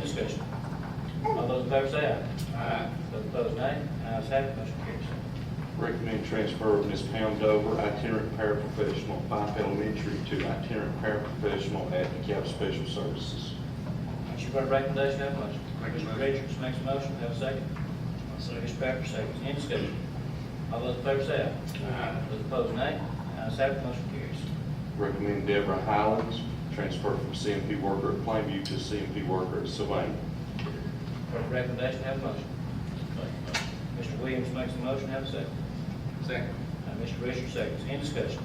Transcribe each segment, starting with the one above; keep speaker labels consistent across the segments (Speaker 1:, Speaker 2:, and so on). Speaker 1: discussion? All those in favor say aye.
Speaker 2: Aye.
Speaker 1: Those opposed, nay. Ayes have it, motion carries.
Speaker 3: Recommend transfer of Ms. Pam Dover, itinerant paraprofessional, Fife Elementary, to itinerant paraprofessional at DeKalb Special Services.
Speaker 1: You've heard the recommendation, have a motion.
Speaker 2: Make a
Speaker 1: Mr.
Speaker 2: motion.
Speaker 1: Richards makes a motion, have a second. Second. Mr. Pepper, seconds. Any discussion? All those in favor say aye.
Speaker 2: Aye.
Speaker 1: Those opposed, nay. Ayes have it, motion carries.
Speaker 3: Recommend Deborah Highlands, transfer from CMP worker at Plainview to CMP worker at Sylvania.
Speaker 1: Heard the recommendation, have a motion. Mr. Williams makes a motion, have a second.
Speaker 2: Second.
Speaker 1: Uh, Mr. Richards, seconds. Any discussion?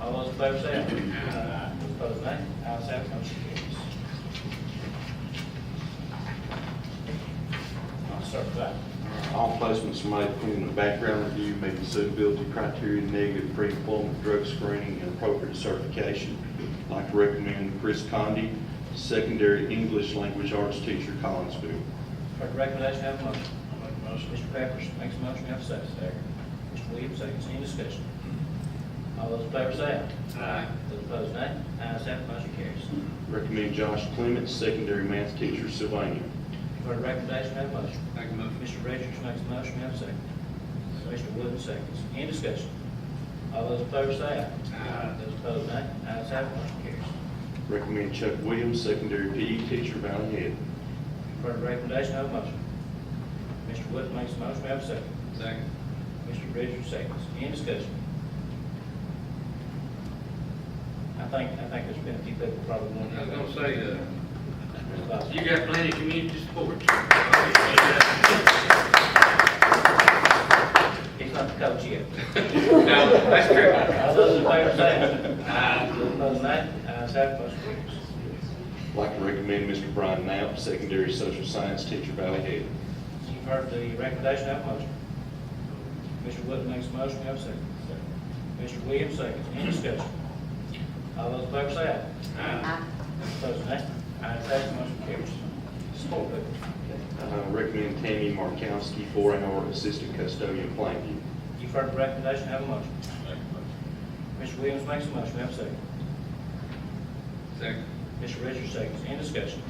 Speaker 1: All those in favor say aye. Aye. Those opposed, nay. Ayes have it, motion carries. I'll start with that.
Speaker 3: All placements made pending a background review meeting suitability criteria, negative pre-employment drug screening, and appropriate certification. I'd like to recommend Chris Condi, secondary English language arts teacher, Collinsville.
Speaker 1: Heard the recommendation, have a motion. I'll make a motion. Mr. Pepperidge makes a motion, have a second. Second. Mr. Williams, seconds, any discussion? All those in favor say aye.
Speaker 2: Aye.
Speaker 1: Those opposed, nay. Ayes have, it, motion carries.
Speaker 3: Recommend Josh Clements, secondary math teacher, Sylvania.
Speaker 1: Heard the recommendation, have a motion.
Speaker 2: Make a motion.
Speaker 1: Mr. Richards makes a motion, have a second. Mr. Williams, seconds, any discussion? All those in favor say aye.
Speaker 2: Aye.
Speaker 1: Those opposed, nay. Ayes have, it, motion carries.
Speaker 3: Recommend Chuck Williams, secondary PE teacher, Valley Head.
Speaker 1: Heard the recommendation, have a motion. Mr. Wood makes a motion, have a second.
Speaker 2: Second.
Speaker 1: Mr. Richards, seconds. Any discussion? I think, I think there's been a few people probably
Speaker 2: I was
Speaker 1: wondering.
Speaker 2: gonna say, uh,
Speaker 1: about it.
Speaker 2: you got plenty of community support.
Speaker 1: He's not the coach yet.
Speaker 2: No, that's true.
Speaker 1: All those in favor say aye. Those opposed, nay. Ayes have, it, motion carries.
Speaker 3: I'd like to recommend Mr. Brian Knapp, secondary social science teacher, Valley Head.
Speaker 1: You've heard the recommendation, have a motion. Mr. Wood makes a motion, have a second. Mr. Williams, seconds. Any discussion? All those in favor say aye. Aye. Those opposed, nay. Ayes have, it, motion carries. Support, please.
Speaker 3: Uh, Recommend Tammy Markowski, four-hour assistant custodian, Plainview.
Speaker 1: You've heard the recommendation, have a motion. Mr. Williams makes a motion, have a second.
Speaker 2: Second.
Speaker 1: Mr. Richards seconds, any discussion?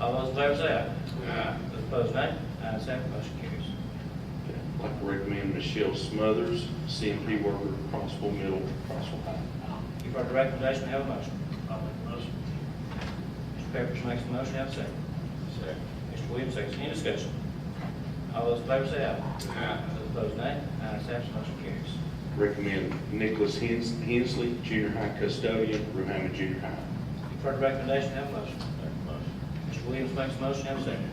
Speaker 1: All those in favor say aye.
Speaker 2: Aye.
Speaker 1: Those opposed, nay. Ayes have, it, motion carries.
Speaker 3: Okay. I'd like to recommend Michelle Smothers, CMP worker, Crossville Middle, Crossville High.
Speaker 1: You've heard the recommendation, have a motion. I'll make a motion. Mr. Pepperidge makes a motion, have a second. Second. Mr. Williams seconds, any discussion? All those in favor say aye.
Speaker 2: Aye.
Speaker 1: Those opposed, nay. Ayes have, it, motion carries.
Speaker 3: Recommend Nicholas Hens- Hensley, junior high custodian, Rohama Junior High.
Speaker 1: You've heard the recommendation, have a motion. Mr. Williams makes a motion, have a second.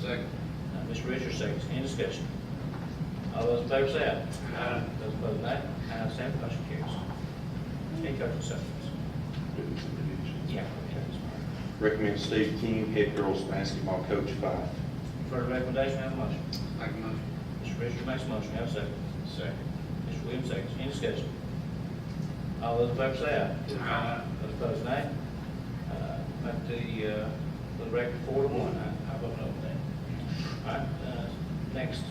Speaker 2: Second.
Speaker 1: Uh, Mr. Richards seconds, any discussion? All those in favor say aye.
Speaker 2: Aye.
Speaker 1: Those opposed, nay. Ayes have, it, motion carries. Any coaching supplements? Yeah.
Speaker 3: Recommend Steve King, head girls basketball coach, Fife.
Speaker 1: For the recommendation, have a motion.
Speaker 2: Make a motion.
Speaker 1: Mr. Richards makes a motion, have a second. Second. Mr. Williams seconds, any discussion? All those in favor say aye.
Speaker 2: Aye.
Speaker 1: Those opposed, nay. Uh, Make the, uh, for the record, four to one, I, I vote no for that. All right, uh, next.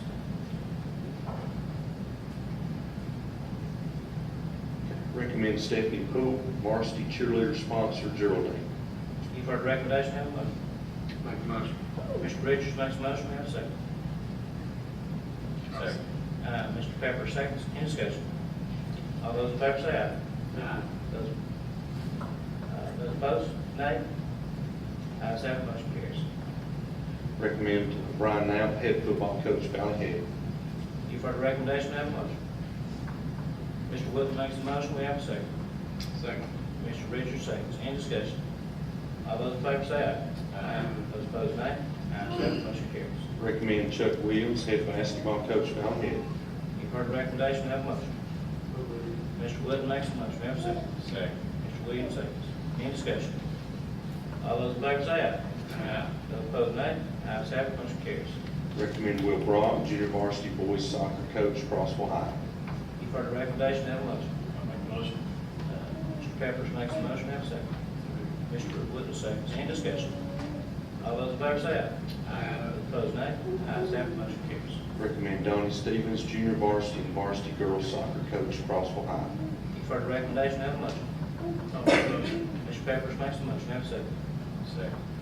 Speaker 3: Recommend Stephanie Poole, varsity cheerleader sponsor, Geraldine.
Speaker 1: You've heard the recommendation, have a motion.
Speaker 2: Make a motion.
Speaker 1: Mr. Richards makes a motion, have a second.
Speaker 2: Second.
Speaker 1: Uh, Mr. Pepper seconds, any discussion? All those in favor say aye.
Speaker 2: Aye.
Speaker 1: Those, uh, those opposed, nay. Ayes have, it, motion carries.
Speaker 3: Recommend Brian Knapp, head football coach, Valley Head.
Speaker 1: You've heard the recommendation, have a motion. Mr. Wood makes a motion, we have a second.
Speaker 2: Second.
Speaker 1: Mr. Richards seconds, any discussion? All those in favor say aye.
Speaker 2: Aye.
Speaker 1: Those opposed, nay. Ayes have, it, motion carries.
Speaker 3: Recommend Chuck Williams, head basketball coach, Valley Head.
Speaker 1: You've heard the recommendation, have a motion. Mr. Wood makes a motion, have a second.
Speaker 2: Second.
Speaker 1: Mr. Williams seconds, any discussion? All those in favor say aye.
Speaker 2: Aye.
Speaker 1: Those opposed, nay. Ayes have, it, motion carries.
Speaker 3: Recommend Will Brock, junior varsity boys soccer coach, Crossville High.
Speaker 1: You've heard the recommendation, have a motion. I'll make a motion. Mr. Pepperidge makes a motion, have a second. Mr. Wood seconds, any discussion? All those in favor say aye.
Speaker 2: Aye.
Speaker 1: Those Opposed, nay. Ayes have, it, motion carries.
Speaker 3: Recommend Donnie Stevens, junior varsity and varsity girls soccer coach, Crossville High.
Speaker 1: You've heard the recommendation, have a motion. Mr. Pepperidge makes a motion, have a second. Second.